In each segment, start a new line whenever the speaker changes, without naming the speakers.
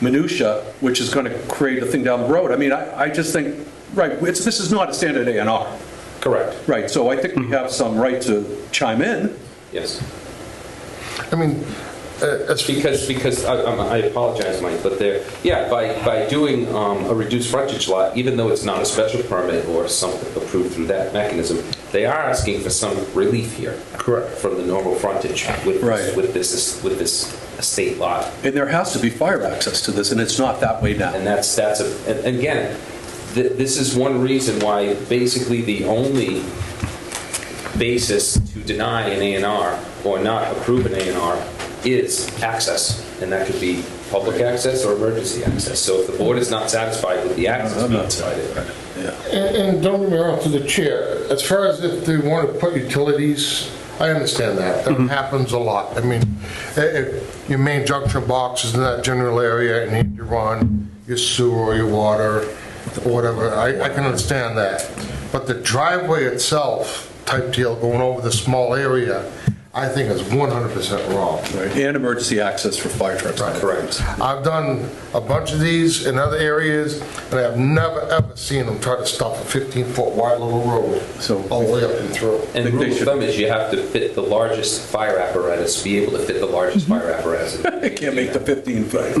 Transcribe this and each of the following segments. minutia, which is going to create a thing down the road. I mean, I, I just think, right, it's, this is not a standard A and R,
Correct.
right? So I think we have some right to chime in.
Yes.
I mean, uh, as,
Because, because, I I'm- I apologize, Mike, but there, yeah, by, by doing um, a reduced frontage lot, even though it's not a special permit or something approved through that mechanism, they are asking for some relief here.
Correct.
From the normal frontage with,
Right.
this- with this, with this estate lot.
And there has to be fire access to this, and it's not that way now.
And that's, that's, a and and again, th- this is one reason why basically the only basis to deny an A and R or not approve an A and R is access. And that could be public access or emergency access. So if the board is not satisfied with the access
I'm
being
not
provided,
and and don't get me wrong, to the chair, as far as if they want to put utilities, I understand that. That happens a lot. I mean, i- if your main junction box is in that general area and you run your sewer or your water, or whatever, I, I can understand that. But the driveway itself type deal going over the small area, I think is 100% wrong.
Right, And emergency access for fire trucks.
Correct.
I've done a bunch of these in other areas, and I've never, ever seen them try to stop a 15-foot wide little road
So-
all the way up and through.
and
Think they
rule of
should-
thumb is you have to fit the largest fire apparatus, be able to fit the largest fire apparatus.
It can't make the 15 foot.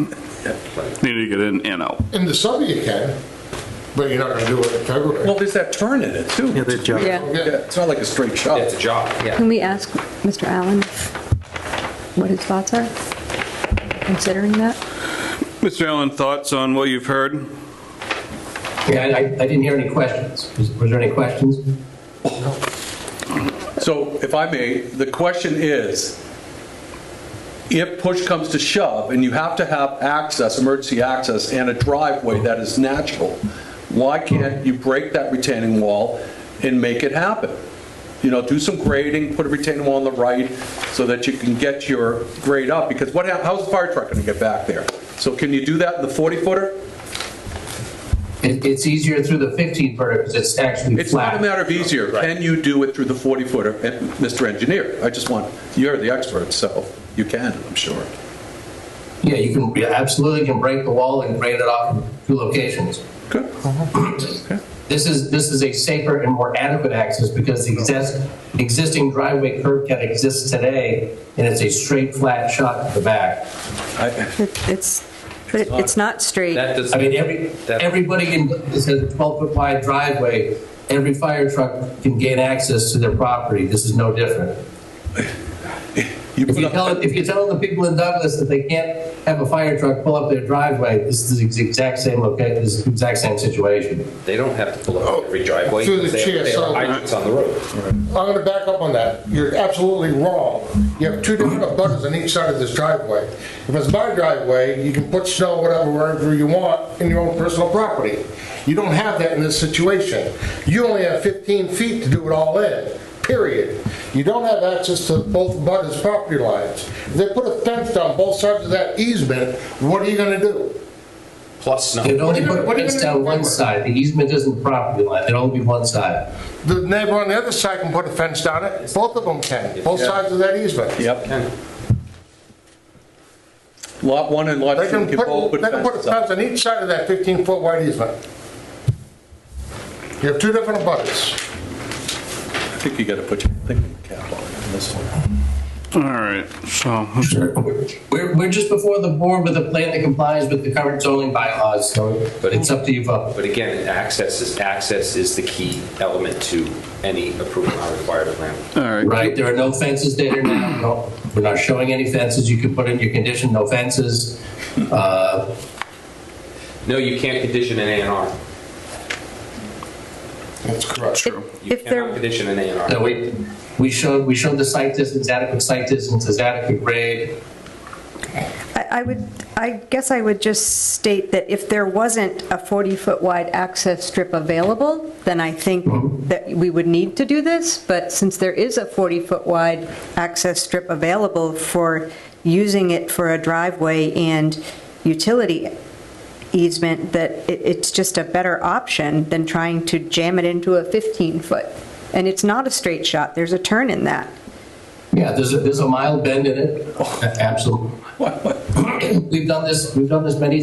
Need to get in and out.
In the summer you can, but you're not going to do it in
Well,
February.
there's that turn in it, too. Yeah,
Yeah.
It's not like a straight shot.
It's a job, yeah.
Can we ask Mr. Allen what his thoughts are, considering that?
Mr. Allen, thoughts on what you've heard?
Yeah, I, I didn't hear any questions. Was was there any questions?
So if I may, the question is, if push comes to shove and you have to have access, emergency access, and a driveway that is natural, why can't you break that retaining wall and make it happen? You know, do some grading, put a retaining wall on the right so that you can get your grade up, because what, hap- how's the fire truck going to get back there? So can you do that in the 40 footer?
It, it's easier through the 15 footer because it's actually
It's not
flat.
a matter of easier. Can you do it through the 40 footer? And Mr. Engineer, I just want, you're the expert, so you can, I'm sure.
Yeah, you can, you absolutely can break the wall and grade it off in two locations.
Good.
This is, this is a safer and more adequate access because the exist- existing driveway curb cut exists today and it's a straight, flat shot to the back.
I-
It- It's, but it- it's not straight.
That does.
I mean, every,
that-
everybody in, this has a 12-foot wide driveway, every fire truck can gain access to their property. This is no different.
You
If
put
you
up,
tell, if you tell the people in Douglas that they can't have a fire truck pull up their driveway, this is the exact same location, this is the exact same situation.
They don't have to pull up every driveway.
Through the
because they-
chair,
They are
so-
hydrants on the road.
I'm going to back up on that. You're absolutely wrong. You have two different butters on each side of this driveway. If it's my driveway, you can put snow, whatever, wherever you want, in your own personal property. You don't have that in this situation. You only have 15 feet to do it all in, period. You don't have access to both butters' property lines. If they put a fence down both sides of that easement, what are you going to do?
Plus snow.
They'd only
What are
put
you
a
gonna- what
fence
are you
down
gonna
one
do?
side, the easement isn't property line, it'd only be one side.
The neighbor on the other side can put a fence down it. Both of them can, both
Yeah.
sides of that easement.
yep. Lot one and lot
They
two
can
can both
put,
put
they can put a
fences up.
fence on each side of that 15-foot wide easement. You have two different abutters.
I think you got to put your thinking cap on it on this one.
All right, so,
We're, we're just before the board with a plan that complies with the current zoning bylaws, so it's up to you vote.
But again, access is, access is the key element to any approval not required plan.
all
Uh,
right.
Right, there are no fences there now, no, we're not showing any fences, you can put in your condition, no fences. Uh,
No, you can't condition an A and R.
That's correct.
You
If there-
cannot condition an A and
No,
R.
we, we showed, we showed the site distance, adequate site distance, is adequate grade.
I I would, I guess I would just state that if there wasn't a 40-foot wide access strip available, then I think that we would need to do this, but since there is a 40-foot wide access strip available for using it for a driveway and utility easement, that it- it's just a better option than trying to jam it into a 15-foot. And it's not a straight shot, there's a turn in that.
Yeah, there's a, there's a mild bend in it, absolutely.
What- what-
We've done this, we've done this many times.